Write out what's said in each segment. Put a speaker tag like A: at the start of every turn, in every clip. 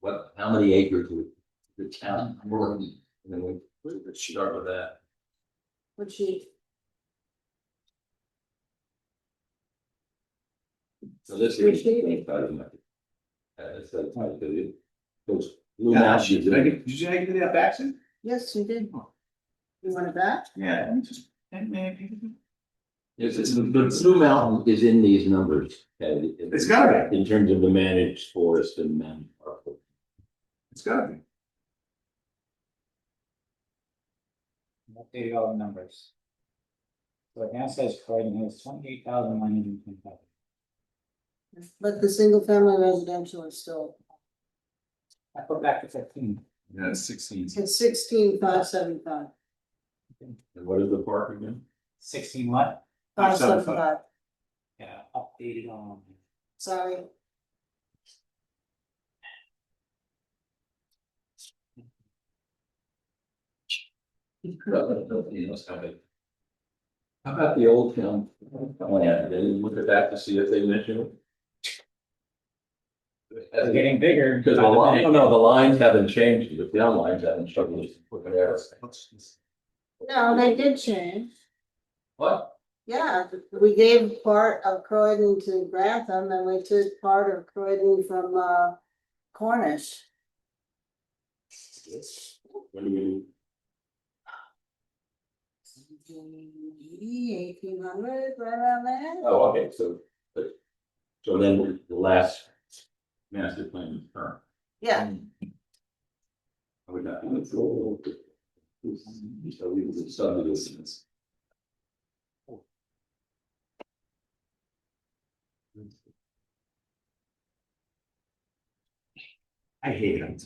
A: what, how many acres would the town work? And then we, we could start with that.
B: Would she?
A: So this
B: Which
A: is.
B: they-
A: Uh, it's a tight, do you? Those blue
C: Yeah,
A: mountains.
C: did I get, did I get that back soon?
B: Yes, you did. You want it back?
C: Yeah. let me just- and maybe-
A: Yes, it's, the blue mountain is in these numbers.
C: It's gotta
A: be. In terms of the managed forest and managed park.
C: It's gotta be.
D: updated all the numbers. So it now says Croydon Hills, twenty-eight thousand nine hundred and twenty-five.
B: But the single family residential is still,
D: I put back to fifteen.
C: Yeah, it's sixteen.
B: it's sixteen five seven five,
A: And what is the park again?
D: Sixteen what?
B: five seven five,
D: Yeah, updated on.
B: sorry.
A: Nobody knows how big. How about the old town plan? They didn't look at that to see if they mentioned
D: It's
A: it.
D: getting bigger. Oh,
A: Because the line, no, no, the lines haven't changed, the town lines haven't struggled to put an arrow.
B: No, they did change,
A: What?
B: yeah, we gave part of Croydon to Grantham and we took part of Croydon from uh Cornish.
A: When you,
B: Eighteen hundred, right around there.
A: oh, okay, so, but- so then the last master plan is current.
B: Yeah,
A: I would not. be in control of it. So we would subdivisions.
C: I hate it.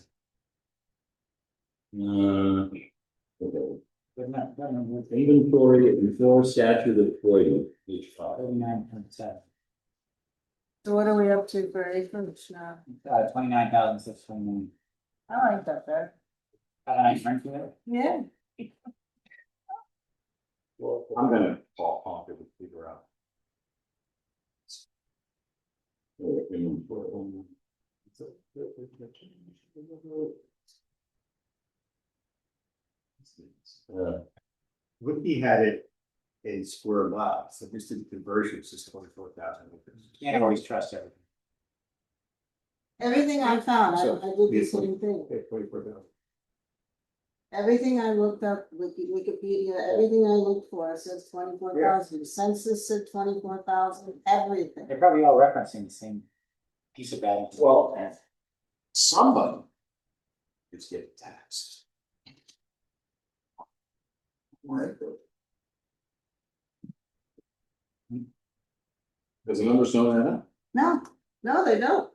A: Uh, okay.
D: But not, not number
A: Inventory and fill statute of Croydon, page five.
D: thirty-nine point seven,
B: so what are we up to for acreage now?
D: uh, twenty-nine thousand six twenty-nine.
B: I like that there.
D: Got a nice run to it.
B: Yeah,
C: I'm gonna.
A: Paul Pompey would figure out. Or inventory. Uh,
C: Whitney had it in square miles, so just did the conversion, it's just twenty four thousand.
D: Can't always trust everything.
B: everything I found, I
C: So,
B: I did the
C: yes,
B: same thing.
C: Okay, twenty four thousand.
B: Everything I looked up, Wiki- Wikipedia, everything I looked for says twenty-four thousand, census said twenty-four thousand, everything.
D: They're probably all referencing the same piece of bad.
C: Well, somebody is getting taxed. Right. Does the numbers know that up?
B: No, no, they don't.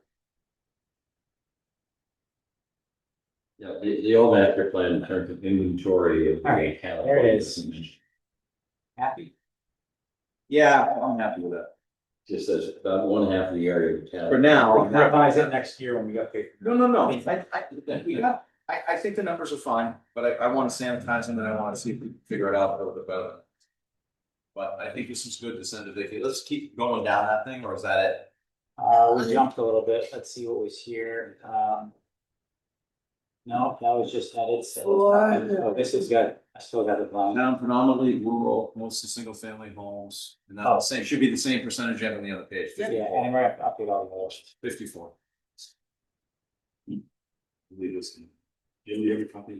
A: Yeah, the, the old master plan in terms of inventory of. the
D: All right,
A: account-
D: there it is. Happy?
C: Yeah, I'm happy with that.
A: Just says about one half of the area of town.
C: For now.
D: We
C: I'm
D: can
C: happy.
D: revise it next year when we update.
C: No, no, no, I, I, we got, I, I think the numbers are fine, but I, I wanna sanitize them and I wanna see if we can figure it out a little bit better. But I think this was good to send to Vicky, let's keep going down that thing, or is that it?
D: Uh, we jumped a little bit, let's see what was here, um. No, that was just edits. Oh, This is good, I still got the line.
C: Down predominantly rural, mostly single family homes, and that's the same, should be the same percentage you have on the other page,
D: Yeah,
C: fifty-four,
D: and we're up- update all the others.
C: fifty-four. Leave this in. Do you have your copy?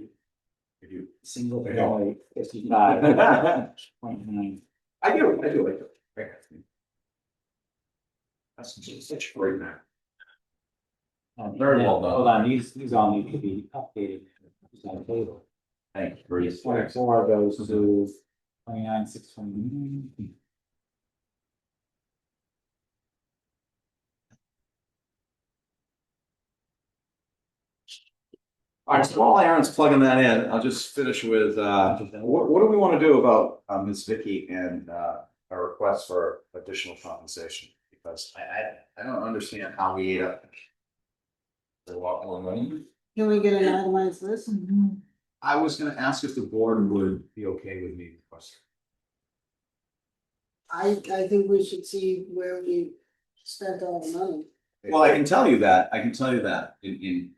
C: If you.
D: Single
C: Yeah.
D: family, fifty-five, point nine.
C: I do, I do, I do. That's just such a great map. Oh, Very well done.
D: Hold on, these, these all need to be updated. It's on the table.
A: Thanks, Bruce.
D: Twenty-four goes to twenty-nine, six twenty-nine.
C: All right, so while Aaron's plugging that in, I'll just finish with, uh, what, what do we want to do about, uh Ms. Vicky and, uh, our request for additional compensation? Because I, I, I don't understand how we ate up.
A: They're walking on money.
B: Can we get an itemized list?
C: I was gonna ask if the board would be okay with me requesting.
B: I, I think we should see where we spent all the money.
C: Well, I can tell you that, I can tell you that in, in,